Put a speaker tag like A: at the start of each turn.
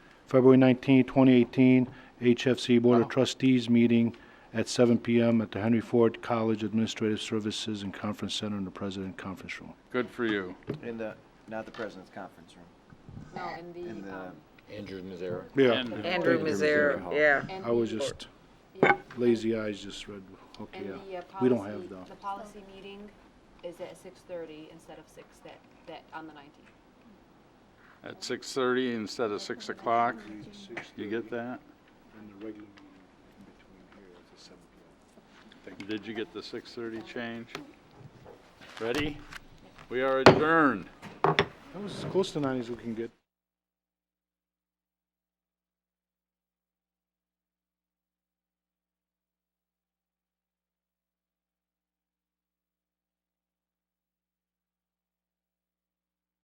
A: February 19, 2018, HFC Board of Trustees meeting at 7 PM at the Henry Ford College Administrative Services and Conference Center in the President Conference Room.
B: Good for you.
C: In the, not the president's conference room,
D: No, in the,
C: in the,
D: um,
E: Andrew Mizera.
A: Yeah,
F: Andrew Mizera, yeah.
D: and
A: I was
D: the-
A: just,
D: yeah,
A: lazy eyes just read, okay,
D: And the
A: yeah.
D: uh,
A: We don't
D: policy,
A: have the,
D: the policy meeting is at six thirty instead of six that, that, on the nineteenth.
B: At 6:30 instead of 6 o'clock. You get that? Did you get the 6:30 change? Ready? We are adjourned.
A: that was close to 90s looking good.